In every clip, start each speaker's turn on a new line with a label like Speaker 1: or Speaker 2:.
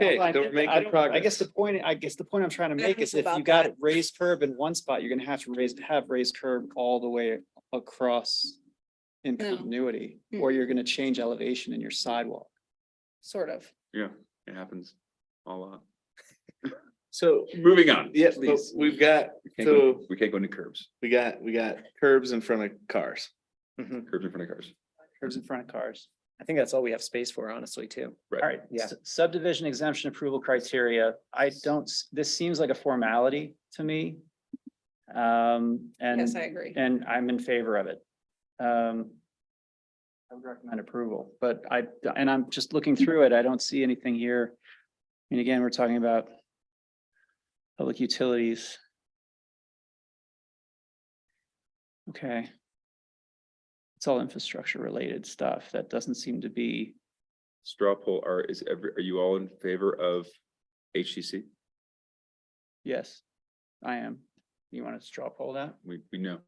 Speaker 1: Hey,
Speaker 2: Well, I
Speaker 1: don't
Speaker 2: get that.
Speaker 1: make
Speaker 2: I
Speaker 1: the
Speaker 2: don't- I
Speaker 1: progress.
Speaker 2: guess the point, I guess the point I'm trying to make is if you
Speaker 3: About
Speaker 2: got a raised curb in one spot, you're gonna have to raise, have raised curb all the way across in
Speaker 3: No.
Speaker 2: continuity,
Speaker 3: Hmm.
Speaker 2: or you're gonna change elevation in your sidewalk.
Speaker 3: sort of.
Speaker 1: Yeah, it happens a lot.
Speaker 4: So,
Speaker 1: Moving on.
Speaker 4: yes, but
Speaker 1: please.
Speaker 4: we've got,
Speaker 1: We can't go-
Speaker 4: so
Speaker 1: We can't go into curbs,
Speaker 4: we got, we got curbs in front of cars.
Speaker 1: curbs in front of cars.
Speaker 2: Curbs in front of cars.
Speaker 5: I think that's all we have space for, honestly, too.
Speaker 2: All right,
Speaker 5: Yeah.
Speaker 2: s- subdivision exemption approval criteria. I don't, s- this seems like a formality to me. Um, and.
Speaker 3: Yes, I agree.
Speaker 2: And I'm in favor of it. Um. I would recommend approval, but I, and I'm just looking through it. I don't see anything here. And again, we're talking about. Public utilities. Okay. It's all infrastructure related stuff. That doesn't seem to be,
Speaker 1: Straw poll are, is every, are you all in favor of HTC?
Speaker 2: yes, I am. You want to straw poll that?
Speaker 1: We, we know.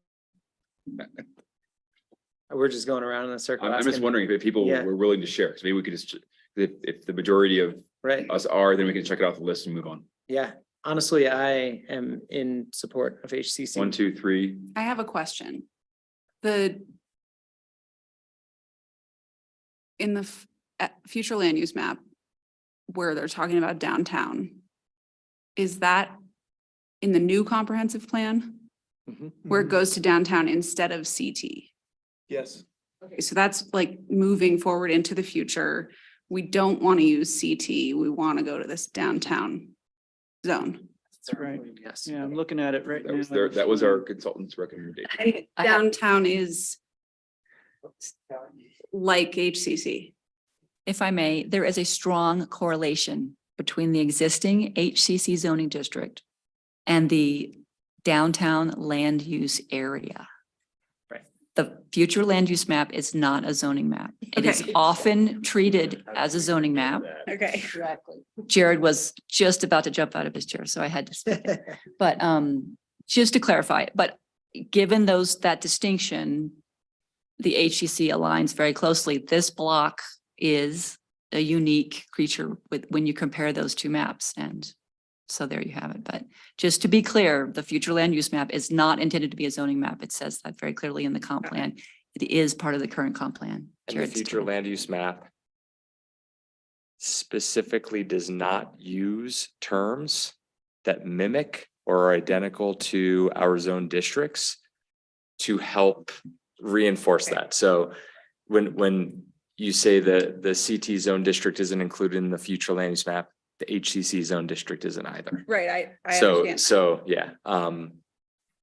Speaker 5: We're just going around in a circle.
Speaker 1: I'm, I'm just
Speaker 5: asking-
Speaker 1: wondering if people
Speaker 5: Yeah.
Speaker 1: were willing to share, because maybe we could just, ch- if, if the majority of
Speaker 5: Right,
Speaker 1: us are, then we can check it off the list and move on.
Speaker 5: yeah. Honestly, I am in support of HCC.
Speaker 1: One, two, three.
Speaker 3: I have a question. The in the f- at future land use map where they're talking about downtown, is that in the new comprehensive plan
Speaker 2: Mm-hmm.
Speaker 3: where it goes to downtown instead of CT?
Speaker 4: Yes.
Speaker 3: Okay, so that's like moving forward into the future. We don't want to use CT. We want to go to this downtown zone.
Speaker 2: That's right.
Speaker 5: Yes.
Speaker 2: Yeah, I'm looking at it right
Speaker 1: That
Speaker 2: now.
Speaker 1: was their, that was our consultant's recommendation.
Speaker 6: I have-
Speaker 3: Downtown is like HCC.
Speaker 6: If I may, there is a strong correlation between the existing HCC zoning district and the downtown land use area.
Speaker 5: Right.
Speaker 6: The future land use map is not a zoning map. It is
Speaker 3: Okay.
Speaker 6: often treated as a zoning map.
Speaker 3: Okay.
Speaker 6: Exactly. Jared was just about to jump out of his chair, so I had to speak. But um, just to clarify, but given those, that distinction, the HCC aligns very closely. This block is a unique creature with, when you compare those two maps and so there you have it. But just to be clear, the future land use map is not intended to be a zoning map. It says that very clearly in the comp
Speaker 3: Okay.
Speaker 6: plan. It is part of the current comp plan.
Speaker 7: And the
Speaker 6: Jared's
Speaker 7: future
Speaker 6: turn.
Speaker 7: land use map specifically does not use terms that mimic or are identical to our zone districts to help reinforce
Speaker 3: Okay.
Speaker 7: that. So when, when you say the, the CT zone district isn't included in the future land use map, the HCC zone district isn't either.
Speaker 3: Right, I, I
Speaker 7: So,
Speaker 3: understand.
Speaker 7: so, yeah, um,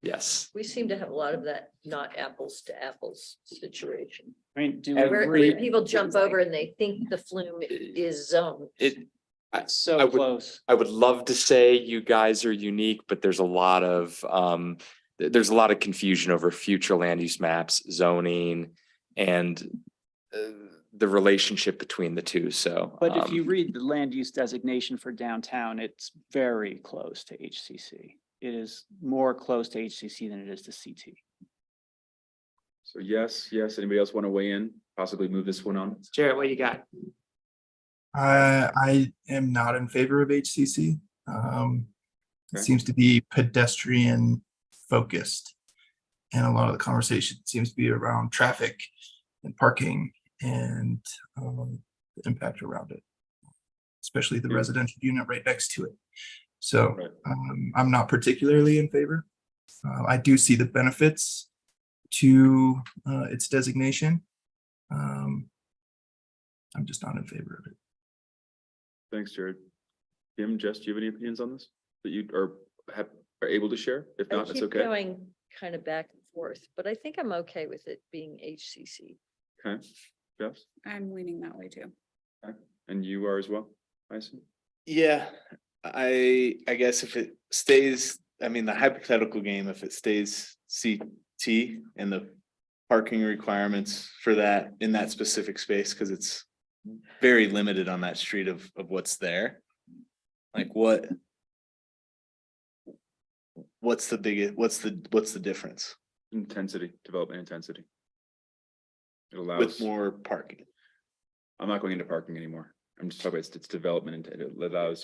Speaker 7: yes.
Speaker 8: We seem to have a lot of that not apples to apples situation.
Speaker 2: I mean, do we
Speaker 8: Where, where
Speaker 2: agree?
Speaker 8: people jump over and they think the flume is zoned.
Speaker 7: It,
Speaker 2: It's so
Speaker 7: I would-
Speaker 2: close.
Speaker 7: I would love to say you guys are unique, but there's a lot of, um, th- there's a lot of confusion over future land use maps, zoning, and uh, the relationship between the two, so.
Speaker 2: But if you
Speaker 7: um,
Speaker 2: read the land use designation for downtown, it's very close to HCC. It is more close to HCC than it is to CT.
Speaker 1: So yes, yes. Anybody else want to weigh in? Possibly move this one on?
Speaker 5: Jared, what you got?
Speaker 9: Uh, I am not in favor of HCC. Um, it
Speaker 1: Okay.
Speaker 9: seems to be pedestrian focused. And a lot of the conversation seems to be around traffic and parking and um, the impact around it. Especially the
Speaker 1: Yeah.
Speaker 9: residential unit right next to it. So
Speaker 1: Right.
Speaker 9: um, I'm not particularly in favor. Uh, I do see the benefits to uh, its designation. Um, I'm just not in favor of it.
Speaker 1: Thanks, Jared. Jim, Jess, do you have any opinions on this that you are, have, are able to share? If
Speaker 8: I
Speaker 1: not, it's
Speaker 8: keep
Speaker 1: okay.
Speaker 8: Going kind of back and forth, but I think I'm okay with it being HCC.
Speaker 1: Okay, Jeff,
Speaker 3: I'm leaning that way too.
Speaker 1: and you are as well, I assume?
Speaker 4: Yeah, I, I guess if it stays, I mean, the hypothetical game, if it stays CT and the parking requirements for that in that specific space, because it's very limited on that street of, of what's there. Like what? What's the biggest, what's the, what's the difference
Speaker 1: Intensity, development intensity. It
Speaker 4: with
Speaker 1: allows,
Speaker 4: more parking?
Speaker 1: I'm not going into parking anymore. I'm just talking about its its development, and it allows